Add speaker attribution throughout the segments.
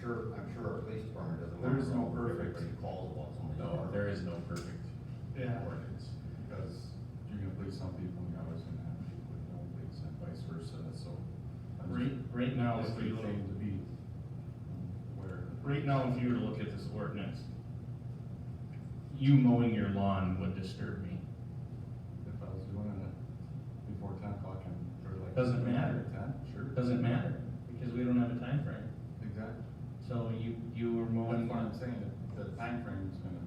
Speaker 1: sure, I'm sure our police department doesn't.
Speaker 2: There is no
Speaker 1: want
Speaker 2: perfect.
Speaker 1: everybody Calls about somebody.
Speaker 3: No, there is no perfect
Speaker 2: Yeah.
Speaker 3: ordinance.
Speaker 2: Because you're gonna please some people, and you're always gonna have people that don't please, and vice versa, so. I'm
Speaker 4: Right,
Speaker 2: just-
Speaker 4: right now,
Speaker 2: It's
Speaker 4: if we
Speaker 2: pretty
Speaker 4: look,
Speaker 2: safe to be um, aware.
Speaker 4: right now, if you were to look at this ordinance, you mowing your lawn would disturb me.
Speaker 2: If I was doing it before ten o'clock and, or like.
Speaker 4: Doesn't matter.
Speaker 2: Ten, sure,
Speaker 4: It Doesn't matter, because we don't have a time frame.
Speaker 2: exactly.
Speaker 4: So you, you were
Speaker 2: That's
Speaker 4: mowing,
Speaker 2: what I'm saying, that the timeframe's gonna,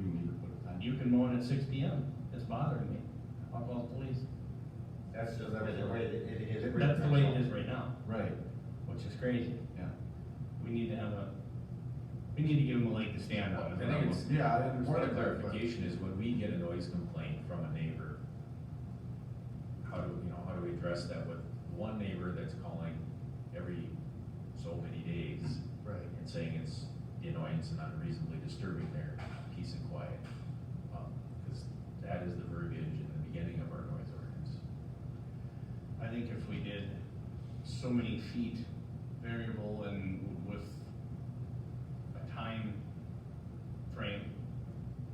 Speaker 2: we need to put a time.
Speaker 4: you can mow it at six P M. It's bothering me. I'll call the police.
Speaker 1: That's just, that's the way it it is.
Speaker 4: That's the way it is right now,
Speaker 2: Right,
Speaker 4: which is crazy.
Speaker 2: yeah.
Speaker 4: We need to have a, we need to give them a leg to stand on.
Speaker 3: I
Speaker 4: is
Speaker 3: think
Speaker 4: what I'm
Speaker 3: it's-
Speaker 2: Yeah, I understand.
Speaker 3: More of
Speaker 2: that,
Speaker 3: a
Speaker 2: but-
Speaker 3: clarification is when we get a noise complaint from a neighbor, how do, you know, how do we address that with one neighbor that's calling every so many days
Speaker 2: Right.
Speaker 3: and saying it's the annoyance and unreasonably disturbing their peace and quiet? Because that is the verbiage in the beginning of our noise ordinance.
Speaker 4: I think if we did so many feet variable and with a time frame,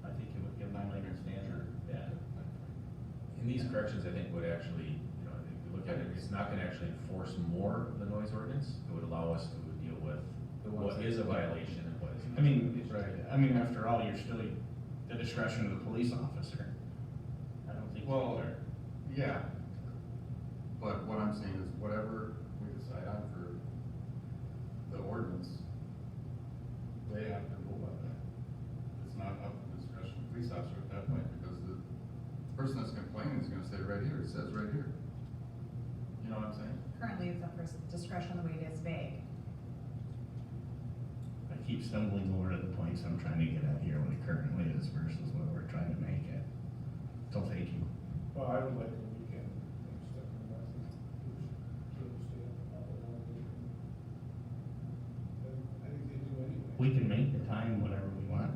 Speaker 4: I think it would give them a later standard. Yeah.
Speaker 3: And these corrections, I think, would actually, you know, if you look at it, it's not gonna actually enforce more of the noise ordinance. It would allow us to deal with
Speaker 2: The ones
Speaker 3: what
Speaker 2: that-
Speaker 3: is a violation and what is.
Speaker 4: I mean,
Speaker 2: Right.
Speaker 4: I mean, after all, you're still the discretion of the police officer. I don't think.
Speaker 2: Well-
Speaker 4: they're-
Speaker 2: Yeah. But what I'm saying is whatever we decide on for the ordinance, they have to go by that. It's not up to discretion of police officer at that point, because the person that's complaining is gonna say right here, it says right here. You know what I'm saying?
Speaker 5: Currently, it's up for discretion, the way it is vague.
Speaker 4: I keep stumbling over to the points I'm trying to get at here, what it currently is versus what we're trying to make it. So thank you.
Speaker 6: Well, I would like a weekend, I'm stuck in the bathroom. Kids stay up all night. I think they do anyway.
Speaker 4: We can make the time whatever we want,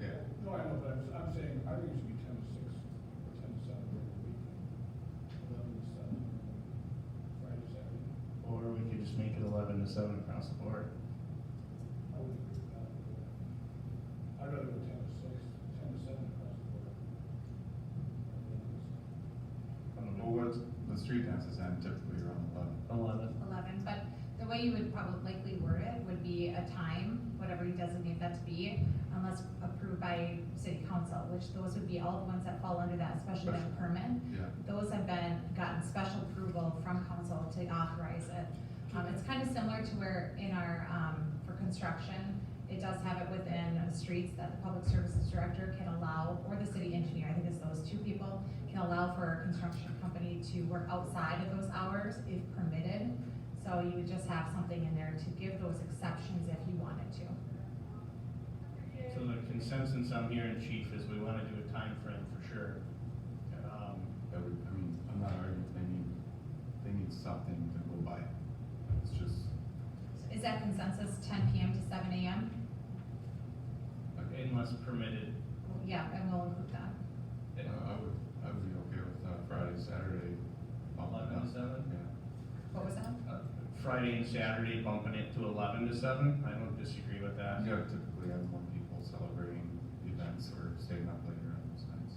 Speaker 4: Councilman.
Speaker 2: Yeah.
Speaker 6: No, I know, but I'm, I'm saying, I think it should be ten to six, or ten to seven during the weekend. Eleven to seven, Friday, Saturday.
Speaker 4: Or we could just make it eleven to seven across the board.
Speaker 6: I would agree with that. I'd rather go ten to six, ten to seven across the board.
Speaker 2: Well, what's, the street dances end typically around eleven.
Speaker 4: Eleven.
Speaker 5: Eleven, but the way you would probably likely word it would be a time, whatever you designate that to be, unless approved by city council, which those would be all the ones that fall under that special event
Speaker 2: Special.
Speaker 5: permit.
Speaker 2: Yeah.
Speaker 5: Those have been, gotten special approval from council to authorize it. Um, it's kind of similar to where in our, um, for construction, it does have it within streets that the public services director can allow, or the city engineer, I think it's those two people, can allow for a construction company to work outside of those hours if permitted. So you would just have something in there to give those exceptions if you wanted to.
Speaker 4: So the consensus I'm hearing, chief, is we wanna do a time frame for sure. Um,
Speaker 2: That would, I mean, I'm not arguing, they need, they need something to go by. It's just,
Speaker 5: Is that consensus, ten PM to seven AM?
Speaker 2: like,
Speaker 4: Unless permitted,
Speaker 5: Yeah, and we'll include that.
Speaker 2: Uh, I would, I would be okay with uh, Friday, Saturday. bump it
Speaker 4: eleven to
Speaker 2: up.
Speaker 4: seven.
Speaker 2: Yeah.
Speaker 5: What was that?
Speaker 4: Uh, Friday and Saturday bumping it to eleven to seven, I don't disagree with that.
Speaker 2: You have typically have more people celebrating events or staying up later on those nights,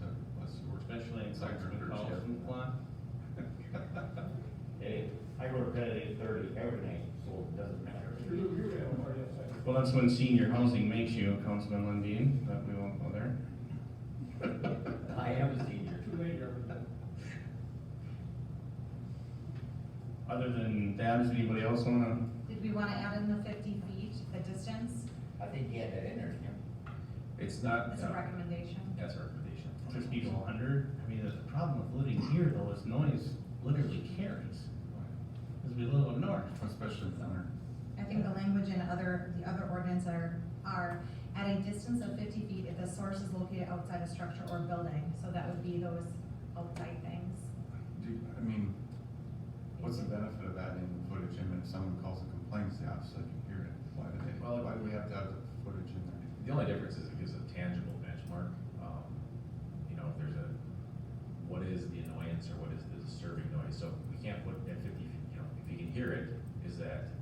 Speaker 2: so unless you work.
Speaker 4: Especially in
Speaker 2: Second or
Speaker 4: Councilman Paulson's
Speaker 2: third shift.
Speaker 4: lot.
Speaker 1: Hey, I go to bed at eight thirty every night, so it doesn't matter.
Speaker 6: You're, you're gonna have a party outside.
Speaker 4: Well, that's when senior housing makes you, Councilman Lundin, but we won't go there.
Speaker 7: I am a senior.
Speaker 6: Too late, everything.
Speaker 4: Other than that, does anybody else wanna?
Speaker 5: Did we wanna add in the fifty feet, the distance,
Speaker 7: I think he had that in there, Kim.
Speaker 3: It's not. uh,
Speaker 5: as a
Speaker 3: no,
Speaker 5: recommendation?
Speaker 3: That's our recommendation.
Speaker 4: Fifty to hundred, I mean, the problem with living here though is noise literally carries, cause we live up north.
Speaker 2: Especially in winter.
Speaker 5: I think the language in other, the other ordinance are, are at a distance of fifty feet if the source is located outside a structure or building, so that would be those outside things.
Speaker 2: Do, you- I mean, what's the benefit of adding the footage in if someone calls and complains, the officer can hear it? Why do they,
Speaker 3: Well,
Speaker 2: why do we have to have the footage in there?
Speaker 3: The only difference is it gives a tangible benchmark, um, you know, if there's a, what is the annoyance or what is the disturbing noise? So we can't put at fifty, you know, if you can hear it, is that